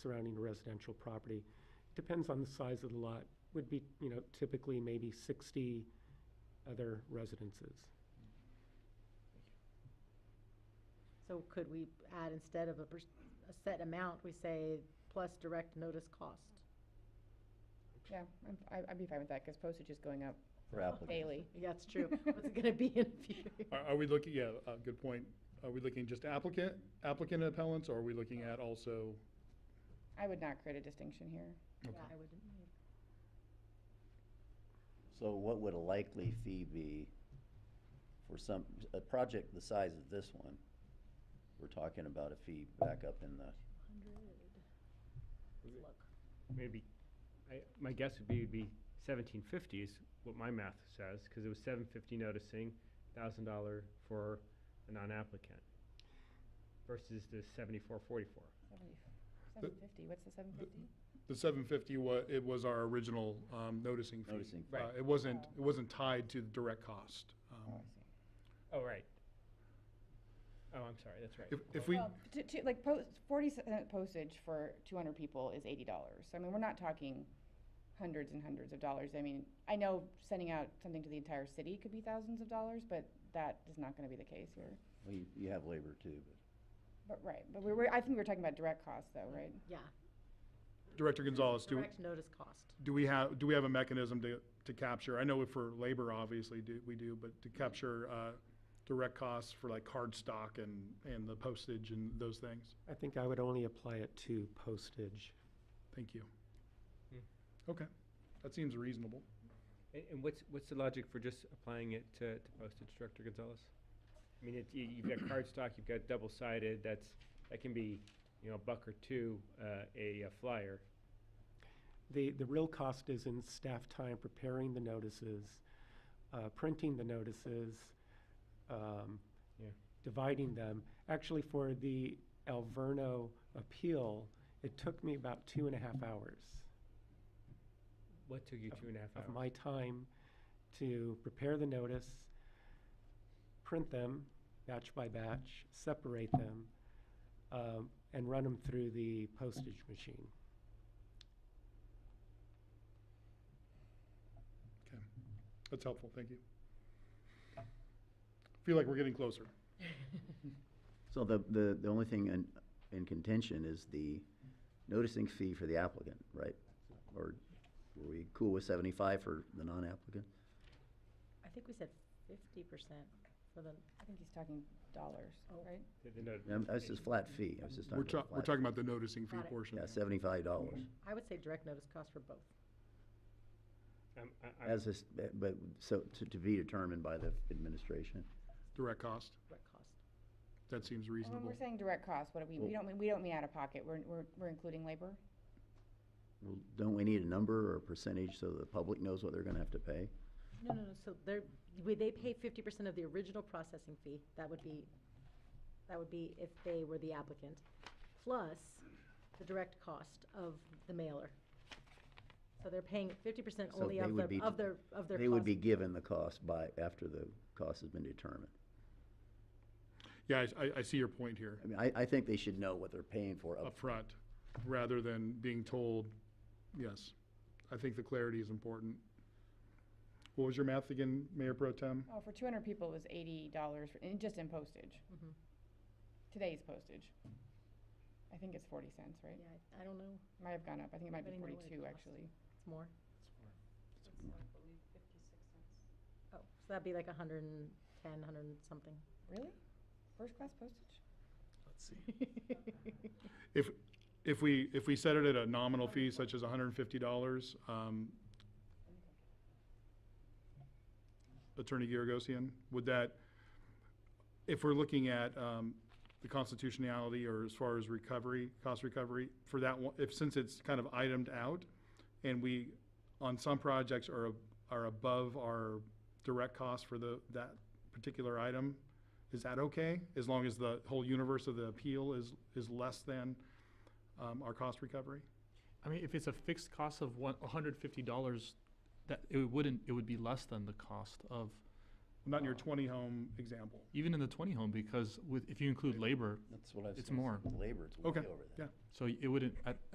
surrounding residential property. Depends on the size of the lot, would be, you know, typically maybe sixty other residences. So could we add, instead of a, pers- a set amount, we say plus direct notice cost? Yeah, I'm, I- I'd be fine with that, because postage is going up for Oh, applicants. daily. Yeah, That's true. What's it gonna be in a few? Are, are we looking, yeah, uh, good point. Are we looking just applicant, applicant appellants, or are we looking at also? I would not create a distinction here. Yeah, I wouldn't. So what would a likely fee be for some, a project the size of this one? We're talking about a fee back up in the, Let's look. maybe, I, my guess would be, would be seventeen fifty is what my math says, because it was seven fifty noticing, thousand dollar for a non-applicant versus the seventy-four forty-four. Seven fifty, what's the seven fifty? The seven fifty wa, it was our original, um, noticing fee. Noticing. Right. Uh, It wasn't, it wasn't tied to the direct cost. Um, Oh, right. Oh, I'm sorry, that's right. If, if we, Well, to, to, like, post, forty cent postage for two hundred people is eighty dollars. So I mean, we're not talking hundreds and hundreds of dollars. I mean, I know sending out something to the entire city could be thousands of dollars, but that is not gonna be the case here. well, you, you have labor too, but. But, right, but we're, we're- I think we're talking about direct costs though, right? Yeah, Director Gonzalez, do, direct notice cost. do we have, do we have a mechanism to, to capture? I know for labor, obviously, do, we do, but to capture, uh, direct costs for like card stock and, and the postage and those things? I think I would only apply it to postage. Thank you. Okay, that seems reasonable. And, and what's, what's the logic for just applying it to, to postage, Director Gonzalez? I mean, it, you, you've got cardstock, you've got double-sided, that's, that can be, you know, a buck or two, uh, a uh, flyer. The, the real cost is in staff time preparing the notices, uh, printing the notices, um, Yeah. dividing them. Actually, for the Alverno appeal, it took me about two and a half hours What took you two and a half hours? of my time to prepare the notice, print them batch by batch, separate them, um, and run them through the postage machine. Okay, that's helpful, thank you. Feel like we're getting closer. So the, the, the only thing in, in contention is the noticing fee for the applicant, right? Or were we cool with seventy-five for the non-applicant? I think we said fifty percent for the, I think he's talking dollars, Oh. right? The- the note- Um, That's just flat fee, I was just We're talking talking, about we're flat. talking about the noticing fee Got it. portion. Yeah, seventy-five dollars. I would say direct notice cost for both. I'm- I- I'm- As this, but, so to, to be determined by the administration. Direct cost, Direct cost. that seems And When reasonable. we're saying direct costs, what do we, we Well- don't, mean- we don't mean out of pocket, we're, we're, we're including labor? Well, don't we need a number or a percentage so the public knows what they're gonna have to pay? No, no, no, so they're, would they pay fifty percent of the original processing fee? That would be, that would be if they were the applicant, plus the direct cost of the mailer. So they're paying fifty percent So only they of would their, be- of their, of their cost. They would be given the cost by, after the cost has been determined. Yeah, I, I- I see your point here, I mean, I, I think they should know what they're paying for up upfront, rather than being told, yes. I think the clarity is important. What was your math again, Mayor Pro Tem? Oh, for two hundred people, it was eighty dollars, just in postage. Mhm. Today's postage. I think it's forty cents, right? Yeah, I- I don't know, Might have gone up, I think it might be Anybody know what it forty-two, costs? actually. it's more. Oh, so that'd be like a hundred and ten, hundred and something. Really? First-class postage? Let's see. If, if we, if we set it at a nominal fee such as hundred and fifty dollars, um, Attorney Giragosian, would that, if we're looking at, um, the constitutionality or as far as recovery, cost recovery, for that one, if, since it's kind of itemed out, and we, on some projects are, are above our direct cost for the, that particular item, is that okay? As long as the whole universe of the appeal is, is less than, um, our cost recovery? I mean, if it's a fixed cost of one, hundred fifty dollars, that, it wouldn't, it would be less than the cost of, Not in your twenty home example. even in the twenty home, because with, if you include labor, That's what I was. It's gonna say. more. Labor, it's way Okay, over that. yeah. so it wouldn't, at,